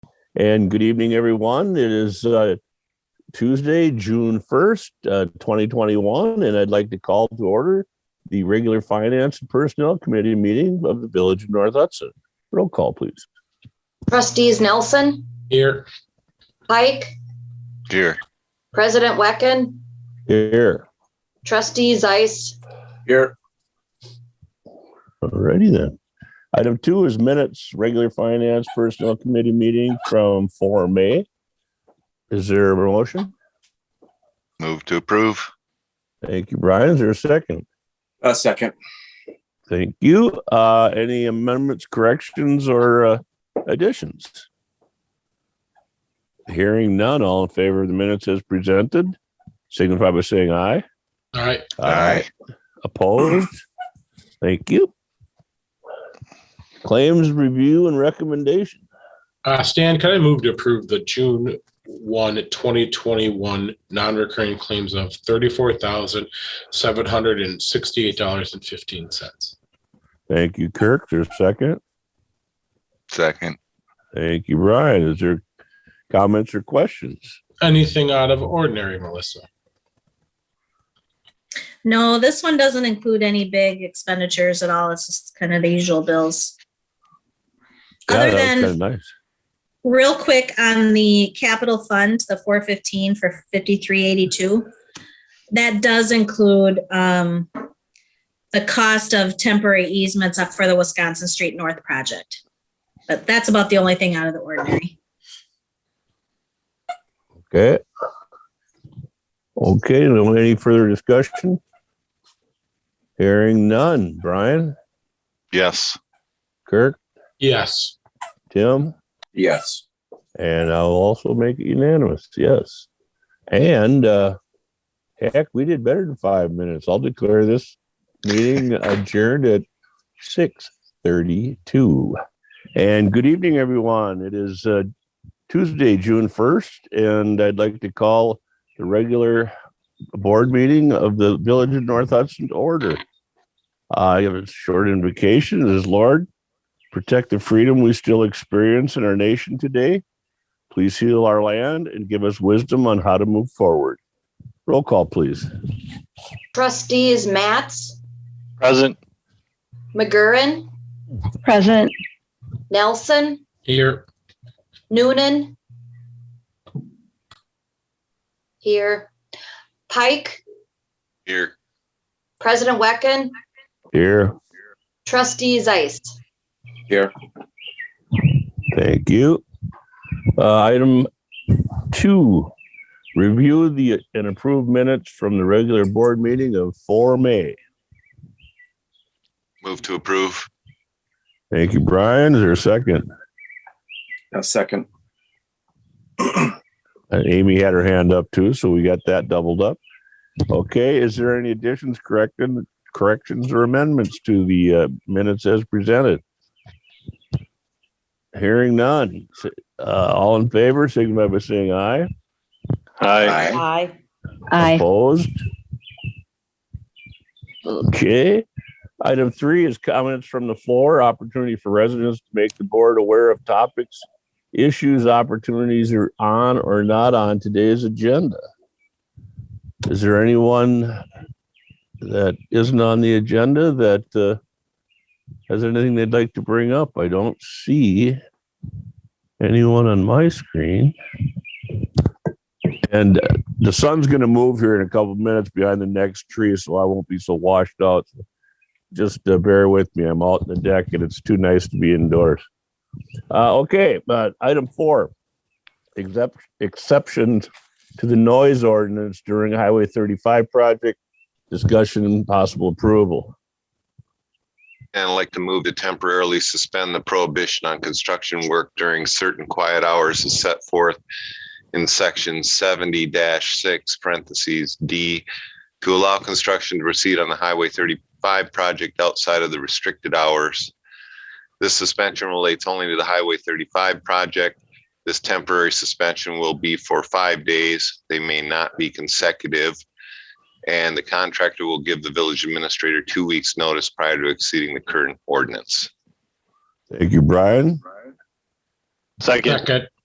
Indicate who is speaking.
Speaker 1: And good evening, everyone. It is uh, Tuesday, June 1st, uh, 2021, and I'd like to call to order the regular Finance and Personnel Committee meeting of the Village of North Hudson. Roll call, please.
Speaker 2: Trustees Nelson,
Speaker 3: Here.
Speaker 2: Pike,
Speaker 4: Here.
Speaker 2: President Wecken,
Speaker 1: Here.
Speaker 2: Trustee Zeiss,
Speaker 3: Here.
Speaker 1: Alrighty then. Item two is minutes, regular Finance Personnel Committee meeting from 4 May. Is there a motion?
Speaker 4: Move to approve.
Speaker 1: Thank you, Brian. Is there a second?
Speaker 3: A second.
Speaker 1: Thank you. Uh, any amendments, corrections, or uh, additions? Hearing none, all in favor of the minutes as presented, signify by saying aye.
Speaker 3: All right.
Speaker 4: Aye.
Speaker 1: Opposed? Thank you. Claims review and recommendation.
Speaker 3: Uh, Stan, can I move to approve the June 1, 2021 non-recurring claims of $34,768.15?
Speaker 1: Thank you, Kirk. There's a second.
Speaker 4: Second.
Speaker 1: Thank you, Brian. Is there comments or questions?
Speaker 3: Anything out of ordinary, Melissa?
Speaker 5: No, this one doesn't include any big expenditures at all. It's just kind of the usual bills. Other
Speaker 1: kind
Speaker 5: than
Speaker 1: of nice.
Speaker 5: real quick on the capital fund, the four fifteen for fifty-three eighty-two. That does include um the cost of temporary easements up for the Wisconsin Street North project. But that's about the only thing out of the ordinary.
Speaker 1: Okay. Okay, no any further discussion? Hearing none. Brian,
Speaker 4: Yes.
Speaker 1: Kirk,
Speaker 3: Yes.
Speaker 1: Tim,
Speaker 3: Yes.
Speaker 1: and I'll also make it unanimous. Yes. And uh heck, we did better than five minutes. I'll declare this meeting adjourned at six thirty-two. And good evening, everyone. It is uh Tuesday, June first, and I'd like to call the regular board meeting of the Village of North Hudson to order. I have a short invocation. It is Lord, protect the freedom we still experience in our nation today. Please heal our land and give us wisdom on how to move forward. Roll call, please.
Speaker 2: trustees Matts,
Speaker 4: Present.
Speaker 2: McGurran,
Speaker 6: Present,
Speaker 2: Nelson,
Speaker 3: Here.
Speaker 2: Noonan. Here. Pike,
Speaker 4: Here.
Speaker 2: President Wecken,
Speaker 1: Here.
Speaker 2: trustee Zeiss.
Speaker 1: Thank you. Uh, item two, review the and approve minutes from the regular board meeting of 4 May.
Speaker 4: Move to approve.
Speaker 1: Thank you, Brian. Is there a second?
Speaker 7: A second.
Speaker 1: And Uh, Amy had her hand up too, so we got that doubled up. Okay, is there any additions, correcting, corrections or amendments to the uh, minutes as presented? Hearing none. S- Uh, all in favor, signify by saying aye.
Speaker 4: Aye.
Speaker 6: aye.
Speaker 1: Opposed? Okay. Item three is comments from the floor, opportunity for residents to make the board aware of topics, issues, opportunities are on or not on today's agenda. Is there anyone that isn't on the agenda that uh, has anything they'd like to bring up? I don't see anyone on my screen. And uh, the sun's going to move here in a couple minutes behind the next tree, so I won't be so washed out. Just uh, bear with me. I'm out in the deck, and it's too nice to be indoors. Uh, okay, but item four, except exceptions to the noise ordinance during Highway 35 project discussion and possible approval.
Speaker 4: And I'd like to move to temporarily suspend the prohibition on construction work during certain quiet hours as set forth in section seventy six parentheses D to allow construction to proceed on the Highway thirty-five project outside of the restricted hours. This suspension relates only to the Highway thirty-five project. This temporary suspension will be for five days. They may not be consecutive. And the contractor will give the village administrator two weeks' notice prior to exceeding the current ordinance.
Speaker 1: Thank you, Brian.
Speaker 3: Second.